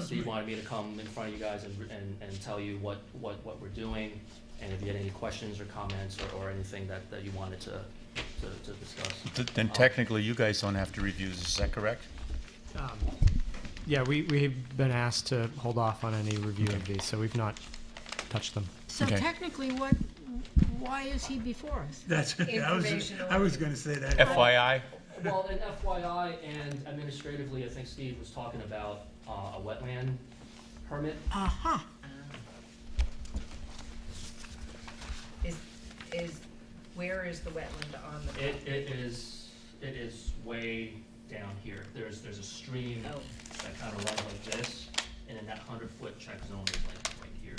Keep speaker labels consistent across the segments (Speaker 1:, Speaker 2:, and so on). Speaker 1: Steve wanted me to come in front of you guys and, and, and tell you what, what, what we're doing, and if you had any questions or comments or, or anything that, that you wanted to, to, to discuss.
Speaker 2: Th- Then technically, you guys don't have to review this, is that correct?
Speaker 3: Um, Yeah, we, we've been asked to hold off on any review of these, so we've not touched them.
Speaker 4: So
Speaker 2: Okay.
Speaker 4: technically, what, why is he before us?
Speaker 5: That's, I was, I was gonna say that.
Speaker 2: FYI?
Speaker 1: Well, and FYI, and administratively, I think Steve was talking about, uh, a wetland permit.
Speaker 4: Aha,
Speaker 6: Is, is, where is the wetland on the?
Speaker 1: It, it is, it is way down here. There's, there's a stream
Speaker 6: Oh,
Speaker 1: that kind of runs like this, and then that hundred foot check zone is like right here.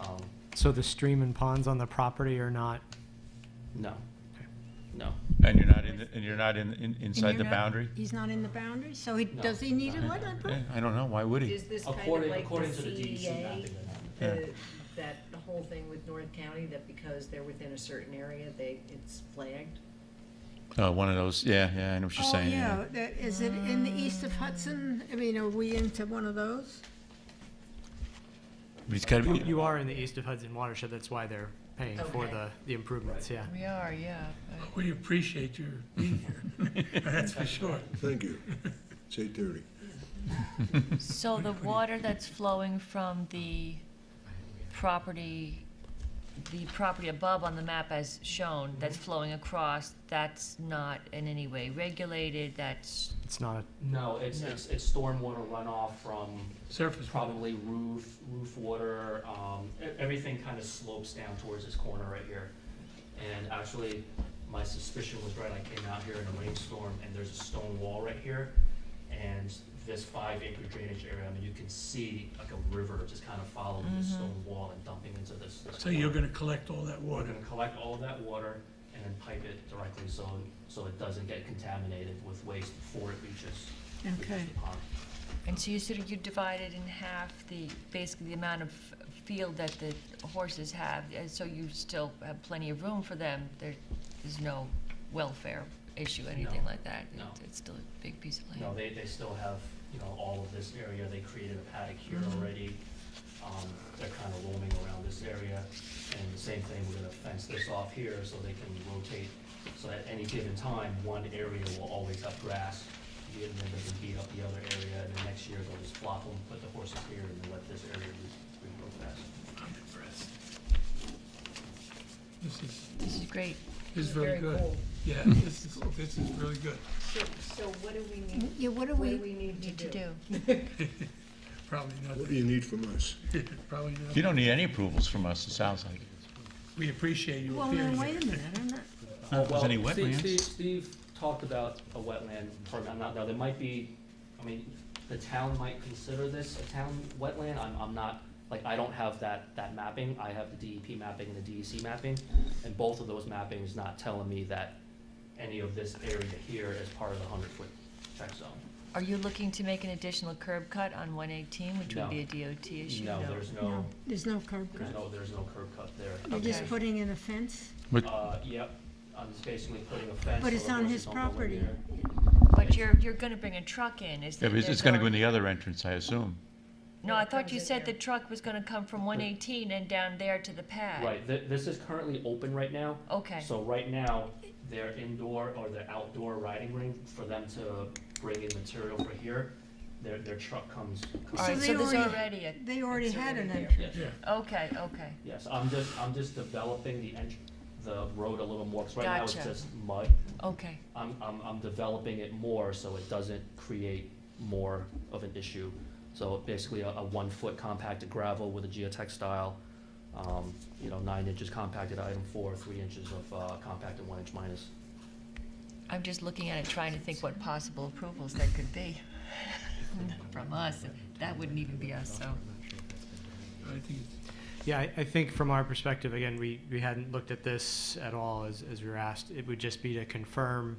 Speaker 1: Um,
Speaker 3: So the stream and ponds on the property are not,
Speaker 1: no, no.
Speaker 2: And you're not in, the- and you're not in, in- inside the
Speaker 4: you're not-
Speaker 2: boundary?
Speaker 4: he's not in the boundary, so he,
Speaker 1: No.
Speaker 4: does he need a wetland
Speaker 2: Eh,
Speaker 4: permit?
Speaker 2: I don't know, why would he?
Speaker 6: is this kind of
Speaker 1: According,
Speaker 6: like the E
Speaker 1: according to the E DEC
Speaker 6: CEA?
Speaker 1: mapping, that
Speaker 2: Yeah.
Speaker 6: the- That whole thing with North County, that because they're within a certain area, they, it's flagged?
Speaker 2: Uh, one of those, yeah, yeah, I know what you're saying.
Speaker 4: Oh, yeah, that- is it in the east of Hudson? I mean, are we into one of those?
Speaker 2: But it's gotta
Speaker 3: you,
Speaker 2: be,
Speaker 3: you are in the east of Hudson watershed, that's why they're paying for
Speaker 6: Okay.
Speaker 3: the, the improvements, yeah.
Speaker 7: We are, yeah.
Speaker 5: We appreciate your being here, that's for sure.
Speaker 8: Thank you. It's eight thirty.
Speaker 7: So the water that's flowing from the property, the property above on the map as shown, that's flowing across, that's not in any way regulated, that's,
Speaker 3: It's not,
Speaker 1: No, it's, it's, it's stormwater runoff from
Speaker 5: Surface.
Speaker 1: probably roof, roof water, um, e- everything kind of slopes down towards this corner right here. And actually, my suspicion was right, I came out here in a rainstorm and there's a stone wall right here. And this five acre drainage area, I mean, you can see like a river just kind of following
Speaker 6: Mm-hmm.
Speaker 1: this stone wall and dumping into this. this
Speaker 5: So you're
Speaker 1: corner.
Speaker 5: gonna collect all that
Speaker 1: We're
Speaker 5: water.
Speaker 1: gonna collect all of that water and then pipe it directly so, so it doesn't get contaminated with waste before it reaches,
Speaker 4: Okay.
Speaker 1: reaches the pond.
Speaker 7: and so you sort of, you divide it in half, the, basically the amount of field that the horses have, and so you still have plenty of room for them, there is no welfare issue, anything
Speaker 1: No,
Speaker 7: like that?
Speaker 1: no.
Speaker 7: It- It's still a big piece of land.
Speaker 1: No, they, they still have, you know, all of this area, they created a paddock here already. Um, they're kind of roaming around this area, and the same thing, we're gonna fence this off here so they can rotate. So at any given time, one area will always have grass, and then they can beat up the other area, and then next year they'll just flop them, put the horses here, and then let this area re- regrow grass.
Speaker 5: I'm impressed. This is,
Speaker 7: This is great.
Speaker 5: this is very good.
Speaker 6: cool.
Speaker 5: Yeah, this is, this is really good.
Speaker 6: So, so what do we need,
Speaker 4: Yeah, what do
Speaker 6: what do we
Speaker 4: we,
Speaker 6: need to do?
Speaker 5: Probably
Speaker 8: What do you need from us?
Speaker 5: not, probably
Speaker 2: you
Speaker 5: not.
Speaker 2: don't need any approvals from us, it sounds like.
Speaker 5: We appreciate you
Speaker 4: well,
Speaker 5: appearing
Speaker 4: now,
Speaker 5: here.
Speaker 4: wait a minute, I'm not,
Speaker 2: Not if there's any
Speaker 1: Well, Steve-
Speaker 2: wetlands.
Speaker 1: Steve, Steve talked about a wetland permit, I'm not, now, there might be, I mean, the town might consider this a town wetland, I'm, I'm not, like, I don't have that, that mapping, I have the DEP mapping and the DEC mapping, and both of those mappings not telling me that any of this area here is part of the hundred foot check zone.
Speaker 7: Are you looking to make an additional curb cut on one eighteen, which would be a DOT issue?
Speaker 1: No, there's no,
Speaker 4: no, there's no curb
Speaker 1: there's
Speaker 4: cut.
Speaker 1: no, there's no curb cut there.
Speaker 4: You're just
Speaker 7: Okay.
Speaker 4: putting in a fence?
Speaker 1: Uh, yep, I'm just basically putting a fence.
Speaker 4: But
Speaker 1: so
Speaker 4: it's
Speaker 1: the
Speaker 4: on
Speaker 1: horses
Speaker 4: his
Speaker 1: don't go in
Speaker 4: property.
Speaker 1: there.
Speaker 7: But you're, you're gonna bring a truck in, is
Speaker 2: Yeah,
Speaker 7: there?
Speaker 2: but it's,
Speaker 7: there's
Speaker 2: it's gonna go in
Speaker 7: already-
Speaker 2: the other entrance, I assume.
Speaker 7: No, I thought
Speaker 6: Comes
Speaker 7: you
Speaker 6: in
Speaker 7: said the
Speaker 6: there.
Speaker 7: truck was gonna come from one eighteen and down there to the pad.
Speaker 1: Right, th- this is currently open right now,
Speaker 7: Okay,
Speaker 1: So right now, their indoor or their outdoor riding ring, for them to bring in material for here, their, their truck comes. comes-
Speaker 7: all right,
Speaker 4: they
Speaker 7: so there's
Speaker 4: already-
Speaker 7: already a,
Speaker 4: They already
Speaker 6: It's
Speaker 4: had
Speaker 6: already
Speaker 4: an
Speaker 6: there.
Speaker 4: entrance.
Speaker 1: Yes,
Speaker 5: Yeah.
Speaker 7: okay, okay.
Speaker 1: yes, I'm just, I'm just developing the entr the road a little more, 'cause right now it's
Speaker 7: Gotcha.
Speaker 1: just mud.
Speaker 7: Okay,
Speaker 1: I'm, I'm, I'm developing it more so it doesn't create more of an issue. So basically a, a one-foot compacted gravel with a geotextile, um, you know, nine inches compacted item four, three inches of, uh, compacted one inch minus.
Speaker 7: I'm just looking at it, trying to think what possible approvals there could be from us. That wouldn't even be us, so.
Speaker 5: I think it's-
Speaker 3: yeah, I, I think from our perspective, again, we, we hadn't looked at this at all as, as we were asked. It would just be to confirm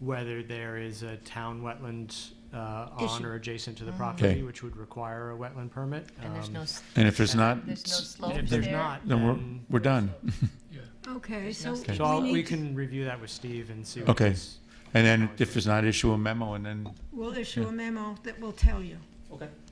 Speaker 3: whether there is a town wetland, uh, on
Speaker 4: Issue.
Speaker 3: or adjacent to the property,
Speaker 2: Okay.
Speaker 3: which would require a wetland permit.
Speaker 7: And there's
Speaker 3: Um,
Speaker 7: no, s-
Speaker 2: And if there's not,
Speaker 7: there's no
Speaker 3: And
Speaker 7: slopes
Speaker 3: if
Speaker 7: there?
Speaker 3: there's not,
Speaker 2: then we're,
Speaker 3: then,
Speaker 2: we're done.
Speaker 5: yeah.
Speaker 4: Okay, so
Speaker 7: no-
Speaker 3: so I'll-
Speaker 4: we
Speaker 3: we
Speaker 4: need, to-
Speaker 3: can review that with Steve and see. what
Speaker 2: Okay.
Speaker 3: his-
Speaker 2: And then if there's not, issue a memo and then
Speaker 4: we'll issue a memo that will tell you.
Speaker 1: Okay.